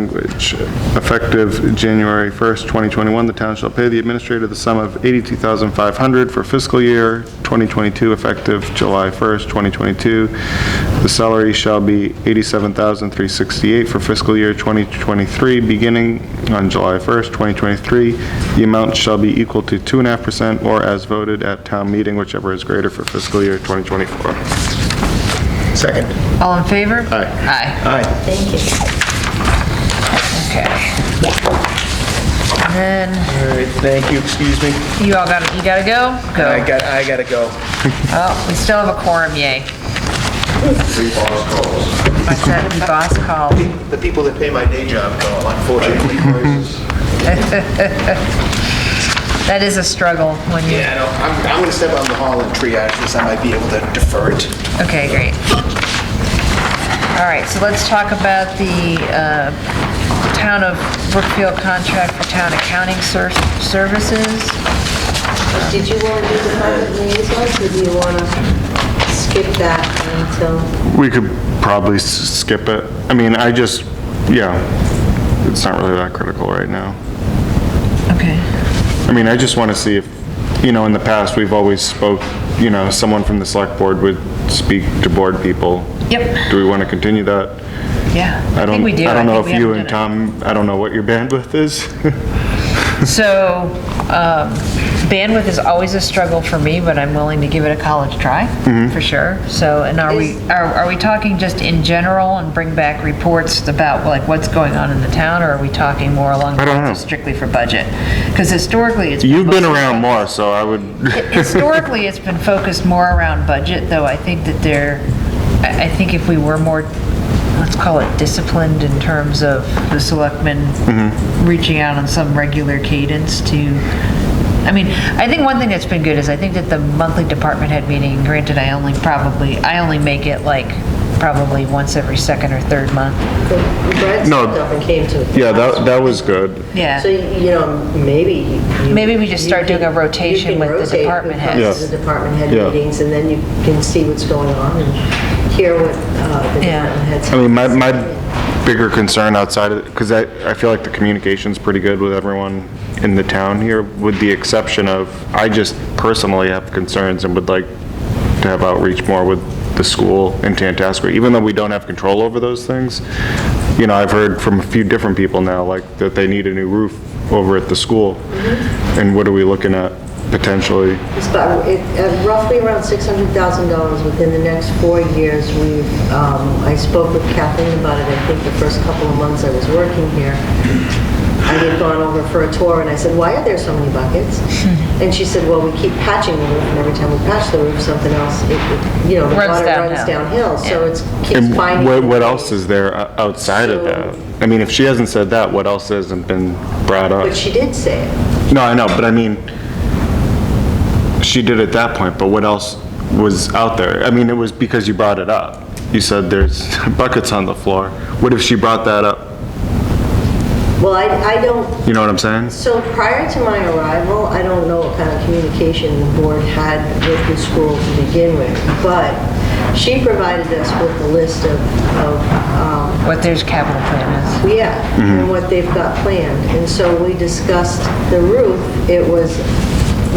language. Effective January 1st, 2021, the town shall pay the administrator the sum of $82,500 for fiscal year 2022, effective July 1st, 2022. The salary shall be $87,368 for fiscal year 2023, beginning on July 1st, 2023. The amount shall be equal to 2.5% or as voted at town meeting, whichever is greater for fiscal year 2024. Second. All in favor? Aye. Aye, Aye. okay. And then, All right, thank you, excuse me. you all got, you gotta go? I Go. got, I gotta go. Oh, we still have a quorum, yay. I said, the boss called. The people that pay my day job call, unfortunately. That is a struggle when you, Yeah, I know, I'm, I'm gonna step out in the hall and triage this, I might be able to defer it. okay, great. All right, so let's talk about the uh, Town of Brookfield contract for town accounting ser- services. Did you want to do department liaisons, or do you want to skip that until, We could probably s- skip it. I mean, I just, yeah, it's not really that critical right now. Okay. I mean, I just want to see if, you know, in the past, we've always spoke, you know, someone from the select board would speak to board people. Yep. Do we want to continue that? Yeah. I don't, think we do. I don't know think if we you haven't and done Tom, I don't know what your bandwidth is. it. So um, bandwidth is always a struggle for me, but I'm willing to give it a college try, Mm-hmm. for sure. So, and are we, are are we talking just in general and bring back reports about like what's going on in the town? Or are we talking more along the I don't lines of know. strictly for budget? Because historically, it's. You've been mostly- around more, so I would, Historically, it's been focused more around budget, though I think that there, I I think if we were more, let's call it disciplined in terms of the selectmen reaching out on some regular cadence to, I mean, I think one thing that's been good is I think that the monthly department head meeting, granted, I only probably, I only make it like probably once every second or third month. Brad No. stepped up and came to. yeah, that, that was good. So, Yeah, you know, maybe. you- Maybe we just you start can- doing a rotation you can with the rotate who department comes heads. to The department head Yeah. meetings, and then you can see what's going on and hear what uh, the Yeah. department heads. I mean, my, my bigger concern outside of, because I, I feel like the communication's pretty good with everyone in the town here, with the exception of, I just personally have concerns and would like to have outreach more with the school in Tantascra, even though we don't have control over those things. You know, I've heard from a few different people now, like, that they need a new roof over at the school. And what are we looking at potentially? It's about, it- uh, roughly around $600,000 within the next four years. We've, um, I spoke with Kathleen about it, I think the first couple of months I was working here. I had gone over for a tour and I said, why are there so many buckets? And she said, well, we keep patching the roof and every time we patch the roof, something else, it- it, you know, the Runs water downhill. runs downhill. So Yeah. it's, keeps And finding. what, what else is there o- outside of that? I mean, if she hasn't said that, what else hasn't been brought up? But she did say it. No, I know, but I mean, she did at that point, but what else was out there? I mean, it was because you brought it up. You said there's buckets on the floor. What if she brought that up? Well, I, I don't, You know what I'm saying? So prior to my arrival, I don't know what kind of communication the board had with the school to begin with, but she provided us with a list of, of, um, what their capital plan is. yeah, and what they've got planned. And so we discussed the roof. It was,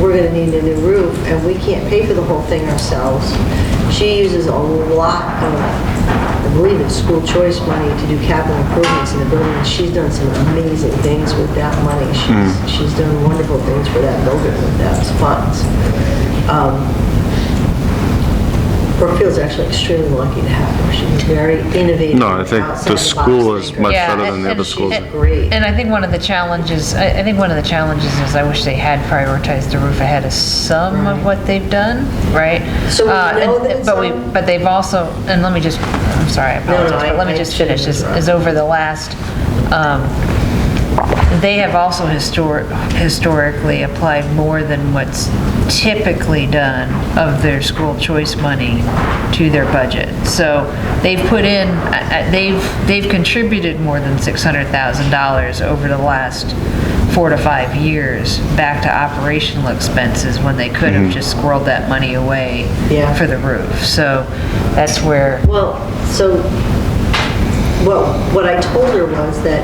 we're gonna need a new roof, and we can't pay for the whole thing ourselves. She uses a lot of, I believe it's school choice money to do capital improvements in the building. She's done some amazing things with that money. Hmm. She's, she's done wonderful things for that building with those funds. Um, Brookfield's actually extremely lucky to have her. She's very innovative. No, I think the outside box school is thinker. much Yeah, better than and- the other and- schools. and- Great. And I think one of the challenges, I, I think one of the challenges is I wish they had prioritized the roof ahead of some of what they've done, right? So we Uh, and- know that But we, some- but they've also, and let me just, I'm sorry, I no, apologize, but I- let me I just shouldn't finish, is, interrupt. is over the last, um, they have also historic, historically applied more than what's typically done of their school choice money to their budget. So they've put in, I- I- they've, they've contributed more than $600,000 over the last four to five years back to operational expenses when they could have just squirreled that money away Yeah. for the roof. So that's where, Well, so what, what I told her was that